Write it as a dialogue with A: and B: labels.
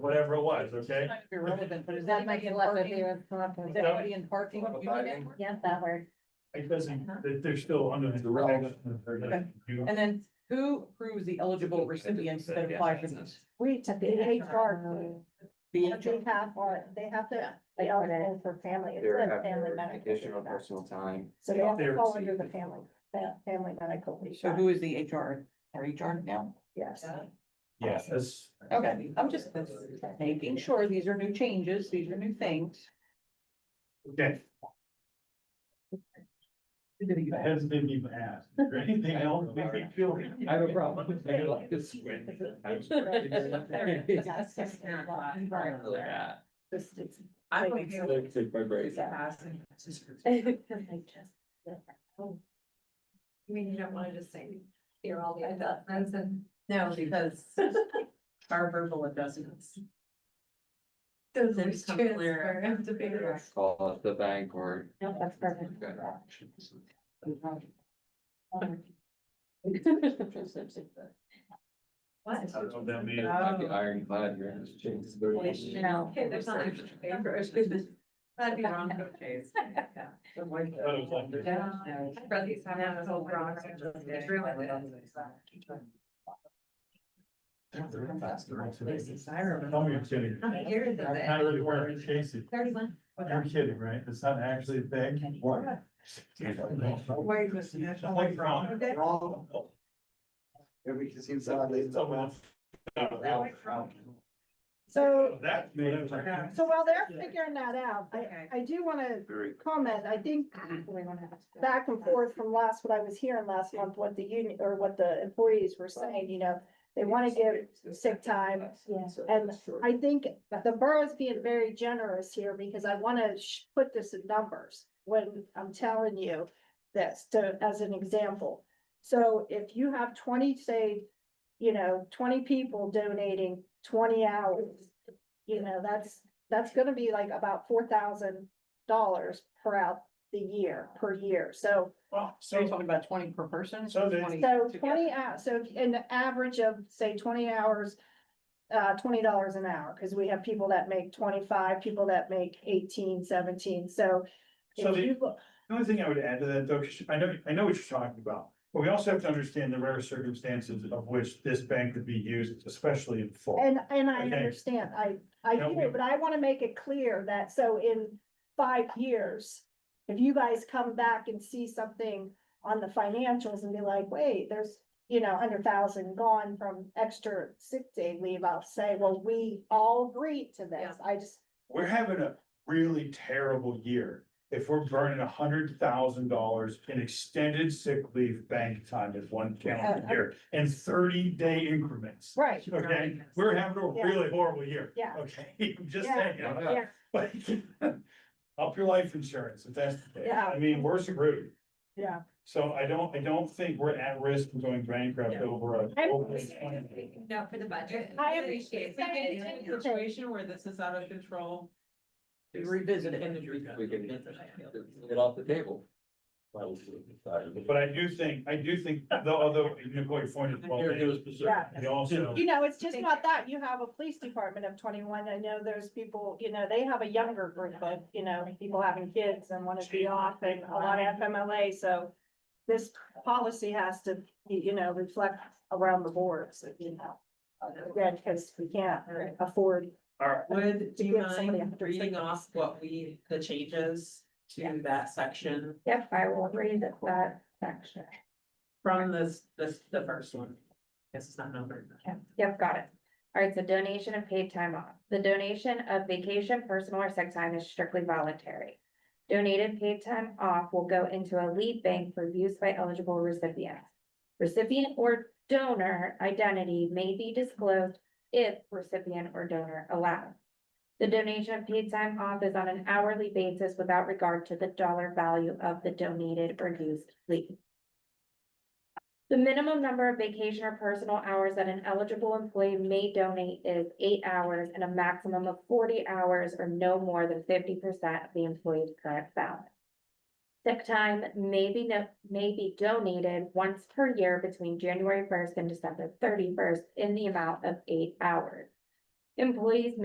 A: whatever it was, okay?
B: Irrelevant, but is
C: That might
B: anybody
C: be
B: in
C: left up
B: parking?
C: here.
B: Is anybody in parking?
A: Well,
B: unit?
C: Yeah, that word.
A: It doesn't, they- they're still under the relevant. You-
B: And then who approves the eligible recipients that apply for this?
D: We, the HR,
B: The
D: they have, or they have to be eligible for family, it's a family medical. leave
E: Additional
D: act.
E: personal time.
D: So they have
A: They're-
D: to fall under the family, fa- family medical. leave
B: So
D: act,
B: who is the HR, our HR E now?
D: Yes.
A: Yes, that's.
B: Okay, I'm just making sure these are new changes, these are new things.
A: Okay, I hesitant to even ask. Is there anything else? Make me feel-
E: I have a problem.
A: I feel like this way.
D: Just- it's-
F: I'm
D: like,
F: okay with
E: Like, take my brace.
F: passing.
D: like, just-
F: You mean you don't wanna just say, here all the adjustments and? No, because our verbal adjustments. Those
C: are
F: are clear.
E: Call the bank or.
D: No, that's perfect.
E: Good.
F: What?
A: I don't know what that means.
E: Like
D: Oh.
E: the ironclad, you're in this change. but-
D: No.
F: Okay, there's not extra paper. That'd be wrong, though, Chase.
A: But it was like this.
F: Yeah. My brother's having a whole wrong. It's really little.
A: They're- they're fast, they're all today.
F: This is Ira.
A: Tell me you're kidding.
F: How many years is it?
A: Not really worth it, Casey.
F: Thirty-one.
A: You're kidding, right? It's not actually a thing. What?
F: Wait, Mr. National.
A: Like wrong.
F: Okay.
A: Wrong.
E: Yeah, we can see
A: Someone-
D: So,
A: That made.
D: so while they're figuring that out, I,
F: Okay.
D: I do wanna
E: Very.
D: comment, I think back and forth from last, what I was hearing last month, what the union, or what the employees were saying, you know, they wanna give sick time,
C: Yes.
D: And I think the borough's being very generous here because I wanna sh- put this in numbers when I'm telling you this to, as an example. So if you have twenty, say, you know, twenty people donating twenty hours, you know, that's, that's gonna be like about four thousand dollars per out the year, per year. So,
A: Well,
B: So you're
A: so,
B: talking about twenty per person?
A: So they-
D: so twenty, hou- so an average of, say, twenty hours uh, twenty dollars an hour, because we have people that make twenty-five, people that make 18, 17. so.
A: So
D: if
A: the-
D: you look-
A: the only thing I would add to that, though, 'cause I know, I know what you're talking about, but we also have to understand the rare circumstances of which this bank could be used, especially in full.
D: And, and I
A: Okay.
D: understand, I, I
A: No,
D: get it,
A: we-
D: but I wanna make it clear that, so in five years, if you guys come back and see something on the financials and be like, wait, there's, you know, hundred thousand gone from extra sick day leave, I'll say, well, we all agreed to this, I just,
A: we're having a really terrible year if we're burning a hundred thousand dollars in extended sick leave bank time in one calendar year in thirty day increments.
D: right,
A: Okay, we're having a
D: Yeah.
A: really horrible year.
D: Yeah.
A: Okay, I'm just
D: Yeah.
A: saying,
D: yeah,
A: like, up your life insurance if that's the case.
D: Yeah.
A: I mean, worse route.
D: yeah.
A: So I don't, I don't think we're at risk of going bankrupt
F: Yeah.
A: over a.
D: I'm-
A: over this plan.
F: No, for the budget.
D: I
F: If
D: appreciate
F: we get into a
D: that.
F: Situation where this is out of control.
B: We revisit it.
E: We can get off the table.
A: But I do think, I do think, though, although Nicole, your point is well made.
D: Yeah.
A: They also.
D: You know, it's just
F: Thank
D: not
F: you.
D: that, you have a police department of twenty-one, I know there's people, you know, they have a younger group of, you know, people having kids and wanna be off and a lot of FMLA, so. This policy has to, you you know, reflect around the board, so, you know. Again, cause we can't afford,
A: All right,
F: Would, do you
D: give somebody a
F: mind
D: hundred
F: reading
D: seconds.
F: off what we, the changes
D: Yeah.
F: to that section
C: Yep, I will read that section.
F: from this, this, the first one? Guess it's not numbered.
C: Yep, got it. All right, so donation of paid time off. The donation of vacation, personal or sick time is strictly voluntary. Donated paid time off will go into a lead bank for use by eligible recipients. Recipient or donor identity may be disclosed if recipient or donor allowed. The donation of paid time off is on an hourly basis without regard to the dollar value of the donated or used leave. The minimum number of vacation or personal hours that an eligible employee may donate is eight hours and a maximum of forty hours or no more than fifty percent of the employee's current salary. Sick time may be no, may be donated once per year between January first and December thirty-first in the amount of eight hours. Employees